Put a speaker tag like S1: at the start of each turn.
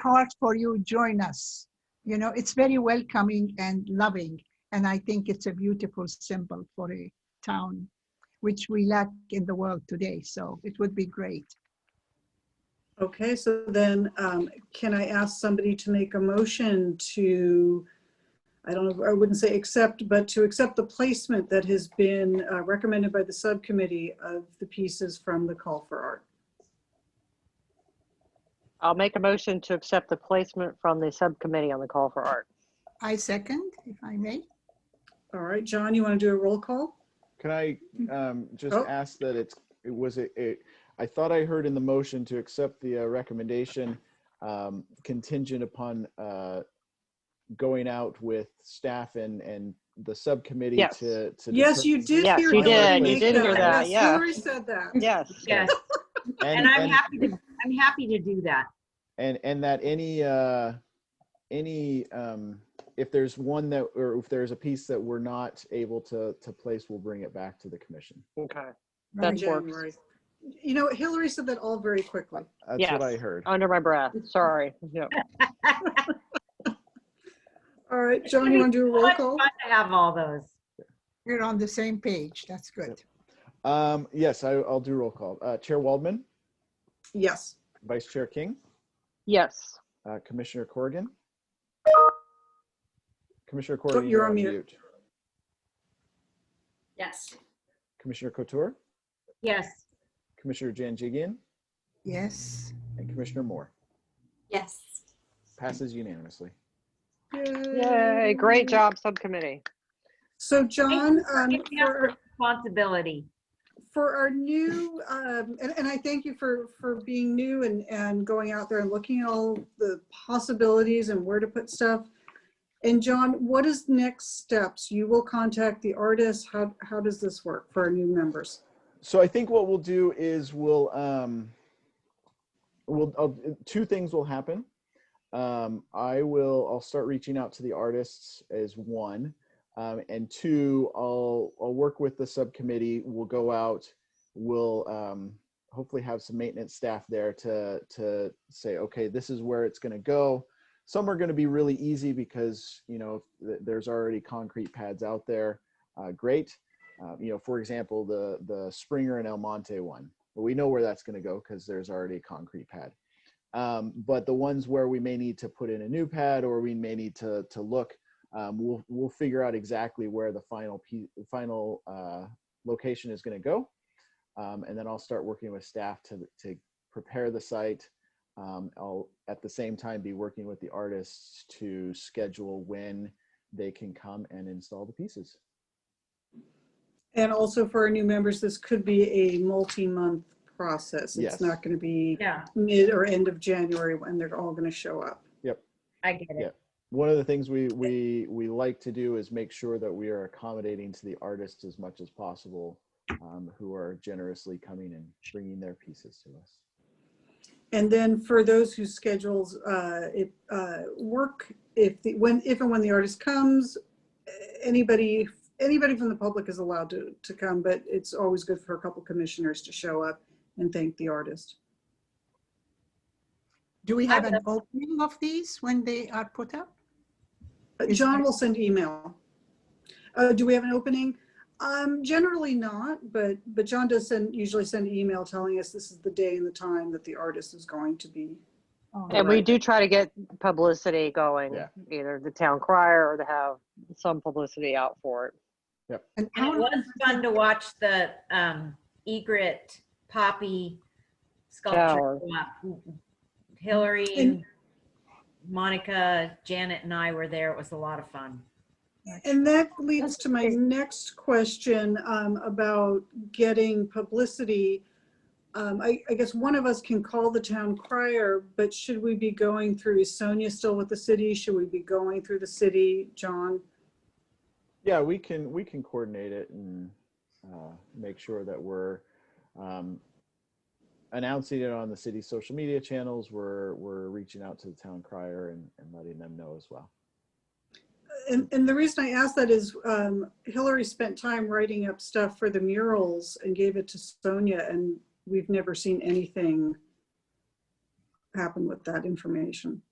S1: hard for you, join us. You know, it's very welcoming and loving. And I think it's a beautiful symbol for a town, which we lack in the world today. So it would be great.
S2: Okay, so then um, can I ask somebody to make a motion to, I don't know, I wouldn't say accept, but to accept the placement that has been uh, recommended by the subcommittee of the pieces from the Call for Art?
S3: I'll make a motion to accept the placement from the subcommittee on the call for art.
S1: I second, if I may.
S2: All right, John, you want to do a roll call?
S4: Can I um, just
S2: Oh.
S4: ask that it's, it was a, it- I thought I heard in the motion to accept the uh, recommendation um, contingent upon uh, going out with staff and, and the subcommittee
S3: Yes.
S4: to. to
S2: Yes, you
S4: determine-
S2: did
S3: Yes,
S2: hear.
S3: you
S2: that.
S4: did. You did hear
S3: that,
S2: Yes,
S3: yeah.
S2: Hillary said that.
S3: Yes.
S5: Yes, and I'm happy, to I'm happy to do that.
S4: and and that any uh any um if there's one that or if there's a piece that we're not able to to place we'll bring it back to the commission
S3: Okay.
S2: In
S3: That works.
S2: January. You know, Hillary said that all very quickly.
S4: that's
S3: Yes.
S4: what i heard
S3: Under my breath. Sorry. Yeah.
S2: All right, John, you want to do a roll
S5: It's
S2: call?
S5: fun to have all those.
S1: We're on the same page. That's good.
S4: um yes I, i'll do roll call uh chair waldman
S2: Yes.
S4: vice chair king
S3: Yes.
S4: uh, commissioner corrigan commissioner
S2: you're
S4: corrigan
S2: on mute.
S5: Yes.
S4: commissioner couture
S5: Yes.
S4: commissioner janjigian
S1: Yes.
S4: and commissioner moore
S5: Yes.
S4: passes unanimously
S3: Yay. Great job, subcommittee.
S2: So John, um,
S5: Taking up
S2: for,
S5: Responsibility.
S2: for our new, um, and, and I thank you for, for being new and, and going out there and looking at all the possibilities and where to put stuff. And John, what is next steps? You will contact the artist. How, how does this work for our new members?
S4: so I think what we'll do is we'll um we'll I'll, two things will happen. Um, I will I'll start reaching out to the artists as one, um, and two I'll I'll work with the subcommittee. We'll go out. We'll um, hopefully have some maintenance staff there to to say okay this is where it's going to go. Some are going to be really easy because you know th- there's already concrete pads out there. Uh, great. Uh, you know, for example, the the Springer and El Monte one. Well, we know where that's going to go because there's already a concrete pad. Um, but the ones where we may need to put in a new pad or we may need to to look, um, we'll we'll figure out exactly where the final p- final uh, location is going to go, um, and then I'll start working with staff to to prepare the site. Um, I'll at the same time be working with the artists to schedule when they can come and install the pieces.
S2: And also for our new members, this could be a multi-month process. It's
S4: Yes.
S2: not going to be
S5: Yeah,
S2: mid or end of January when they're all going to show up.
S5: I get
S4: Yeah.
S5: it.
S4: one of the things we we we like to do is make sure that we are accommodating to the artists as much as possible um, who are generously coming and bringing their pieces to us
S2: And then for those whose schedules, uh, it, uh, work, if, the when, if and when the artist comes, anybody, anybody from the public is allowed to, to come, but it's always good for a couple commissioners to show up and thank the artist.
S1: Do we have an opening of these when they are put up?
S2: Uh,
S1: Is
S2: John
S1: there-
S2: will send email. Uh, do we have an opening? Um, generally not, but, but John does send, usually send an email telling us this is the day and the time that the artist is going to be.
S1: Oh,
S3: And we do try to get publicity going,
S4: Yeah.
S3: either the town crier or to have some publicity out for it.
S1: and
S5: And
S1: how
S5: it was fun to watch the um, egret poppy
S3: Yeah.
S5: sculpture. go up. Hillary and Monica, Janet and I were there. It was a lot of fun.
S2: And that leads
S1: That's
S2: to my
S1: great.
S2: next question um, about getting publicity. Um, I, I guess one of us can call the town crier, but should we be going through, is Sonia still with the city? Should we be going through the city, John?
S4: yeah we can we can coordinate it and uh, make sure that we're um, announcing it on the city's social media channels we're we're reaching out to the town crier and, and letting them know as well
S2: And, and the reason I ask that is um, Hillary spent time writing up stuff for the murals and gave it to Sonia, and we've never seen anything happen with that information.